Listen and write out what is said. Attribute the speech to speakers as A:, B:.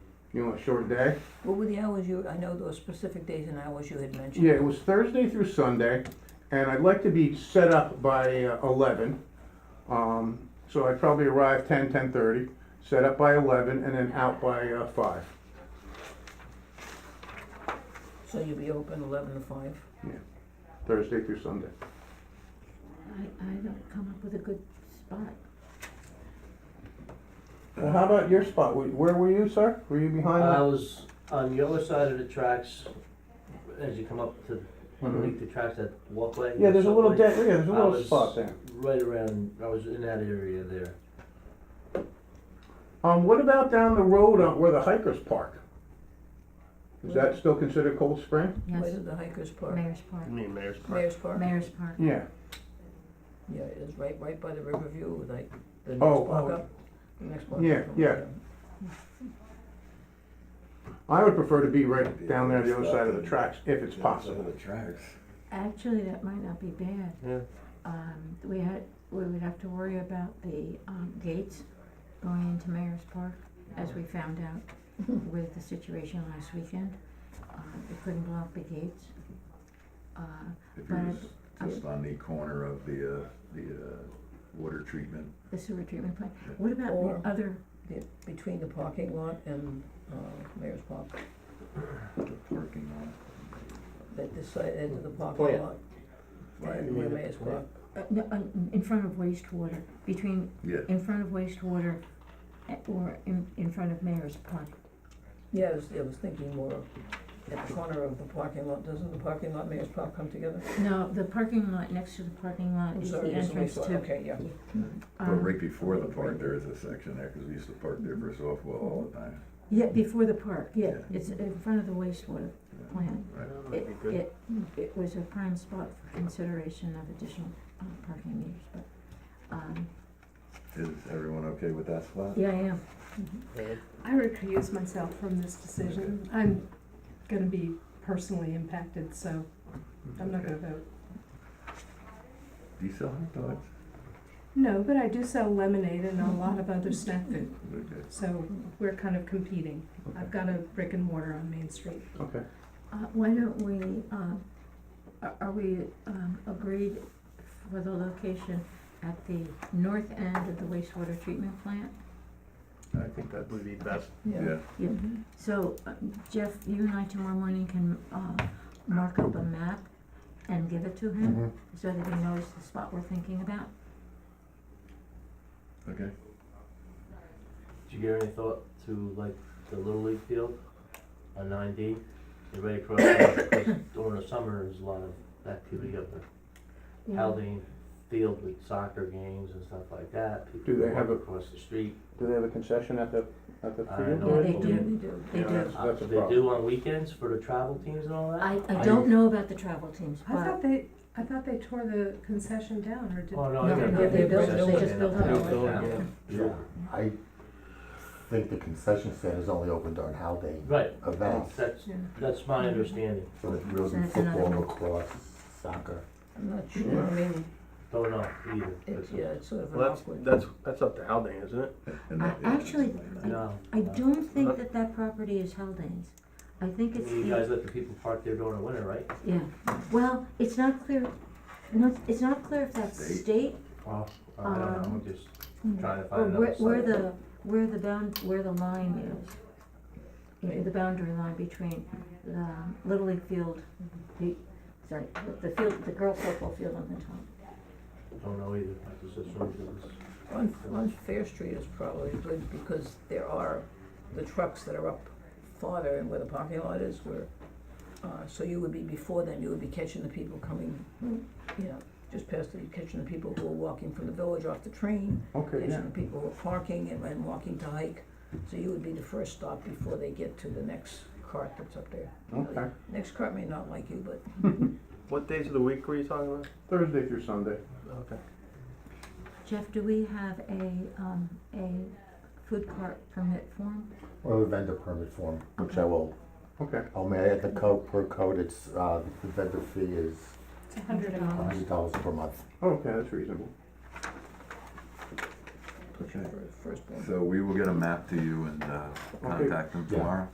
A: You want a short day?
B: What were the hours you, I know those specific days and hours you had mentioned.
A: Yeah, it was Thursday through Sunday, and I'd like to be set up by uh, eleven. Um, so I'd probably arrive ten, ten-thirty, set up by eleven, and then out by uh, five.
B: So you'll be open eleven to five?
A: Thursday through Sunday.
C: I, I don't come up with a good spot.
A: Well, how about your spot? Wh- Where were you, sir? Were you behind?
D: I
A: the-
D: was on the other side of the tracks, as you come up to, underneath the tracks, that walkway.
A: Yeah, there's a little
D: subway.
A: dead, yeah, there's a
D: I
A: little
D: was
A: spot there.
D: Right around, I was in that area there.
A: Um, what about down the road on where the hikers park? Is that still considered Cold Spring?
B: Where
C: Yes,
B: did the hikers park?
C: Mayor's Park,
E: mean Mayor's Park?
B: Mayor's Park?
C: Mayor's Park.
A: Yeah.
B: Yeah, it is right, right by the Riverview, like the next
A: Oh,
B: block
A: oh.
B: up. The next block
A: Yeah,
B: up from
A: yeah.
B: there.
A: I would prefer to be right down there on the other side of the tracks if it's possible.
E: The tracks.
C: Actually, that might not be bad.
D: Yeah.
C: Um, we had, we would have to worry about the, um, gates going into Mayor's Park, as we found out with the situation last weekend. Uh, they couldn't block the gates. Uh,
F: If
C: But
F: you're just on the corner of the, uh, the, uh, water treatment,
C: the sewer treatment plant, what about
B: Or-
C: the other,
B: Be- Between the parking lot and, uh, Mayor's Park,
F: the parking
B: that this side end of the parking
D: Plant.
B: lot,
F: lot, right?
B: and where Mayor's Park.
C: uh, no, uh, in front of wastewater, between
F: Yeah,
C: in front of wastewater eh, or in, in front of Mayor's Park.
B: Yeah, I was, I was thinking more at the corner of the parking lot, doesn't the parking lot, Mayor's Park come together?
C: No, the parking lot, next to the parking lot
B: I'm
C: is
B: sorry,
C: the
B: there's a
C: entrance
B: wastewater.
C: to,
B: Okay, yeah,
F: but
C: um,
F: right before the park, there is a section there, cause we used to park there for softball all the time.
C: yeah, before the park, yeah,
F: Yeah.
C: it's in front of the wastewater plant.
F: Right.
C: It, it, it was a prime spot for consideration of additional, uh, parking meters, but, um,
F: Is everyone okay with that spot?
C: yeah, I am.
G: I recuse myself from this decision. I'm gonna be personally impacted, so I'm not gonna vote.
F: Do you sell hot dogs?
G: No, but I do sell lemonade and a lot of other snack food,
F: Okay.
G: so we're kind of competing. I've got a brick and mortar on Main Street.
A: Okay.
C: Uh, why don't we, um, are, are we, um, agreed for the location at the north end of the wastewater treatment plant?
F: I think that's,
E: Would be best.
B: yeah.
F: yeah,
C: So uh, Jeff, you and I tomorrow morning can uh, mark up a map and give it to him so that he knows the spot we're thinking about.
F: okay.
D: Did you give any thought to like the Little League field on nine D? And right across, because during the summer, there's a lot of activity up there. Haldane Field with soccer games and stuff like that.
A: Do they have a-
D: People walk across the street.
A: Do they have a concession at the, at the
D: I
A: field?
D: know
C: Yeah, they
D: it.
C: do.
B: They do.
C: They
A: Yeah,
C: do.
A: That's a
D: They
A: problem.
D: do on weekends for the travel teams and all that?
C: I, I
D: I-
C: don't know about the travel teams,
G: I thought
C: but
G: they, I thought they tore the concession down, or did?
D: Oh, no,
C: No,
D: they're
C: no,
D: not.
C: they built- they
D: Concession
C: just built
D: stand
C: it.
D: up
C: They
D: there.
C: built
D: Yeah.
H: Yeah, I think the concession stand is only open during Haldane
D: Right,
H: events,
D: that's,
G: Yeah.
D: that's my understanding,
H: so it really
C: That's
H: football,
C: another-
H: lacrosse, soccer.
B: I'm not sure, I mean,
D: don't know either.
B: it's, yeah, it's sort of an
E: Well, that's,
B: awkward.
E: that's, that's up to Haldane, isn't it?
F: And that-
C: I- actually,
D: No.
C: I
D: no.
C: don't think that that property is Haldane's. I think it's,
D: You
C: the-
D: guys let the people park there during the winter, right?
C: yeah, well, it's not clear, no, it's not clear if that's
F: State.
C: state
D: Oh, I don't know, I'm just trying to
C: or
D: find
C: where,
D: another
C: Um, hmm. where
D: site.
C: the, where the bound, where the line is. You know, the boundary line between the Little League field, the, sorry, the- the field, the girls football field on the top.
D: Don't know either, I just assumed it was.
B: On, on Fair Street is probably good because there are the trucks that are up farther and where the parking lot is where, uh, so you would be before them, you would be catching the people coming, you know, just past the, catching the people who are walking from the village off the train,
A: Okay, yeah.
B: catching the people who are parking and, and walking to hike. So you would be the first stop before they get to the next cart that's up there.
A: Okay.
B: Next cart may not like you, but
E: What days of the week were you talking about?
A: Thursday through Sunday.
E: Okay.
C: Jeff, do we have a, um, a food cart permit form?
H: Or a vendor permit form, which I will,
A: Okay.
H: oh man, at the code, per code, it's, uh, the vendor fee is
G: It's a hundred
H: a
G: dollars.
A: Oh,
H: hundred dollars per month.
A: Okay, that's reasonable.
B: for the firstborn.
F: So we will get a map to you and uh,
A: Okay.
F: contact them tomorrow.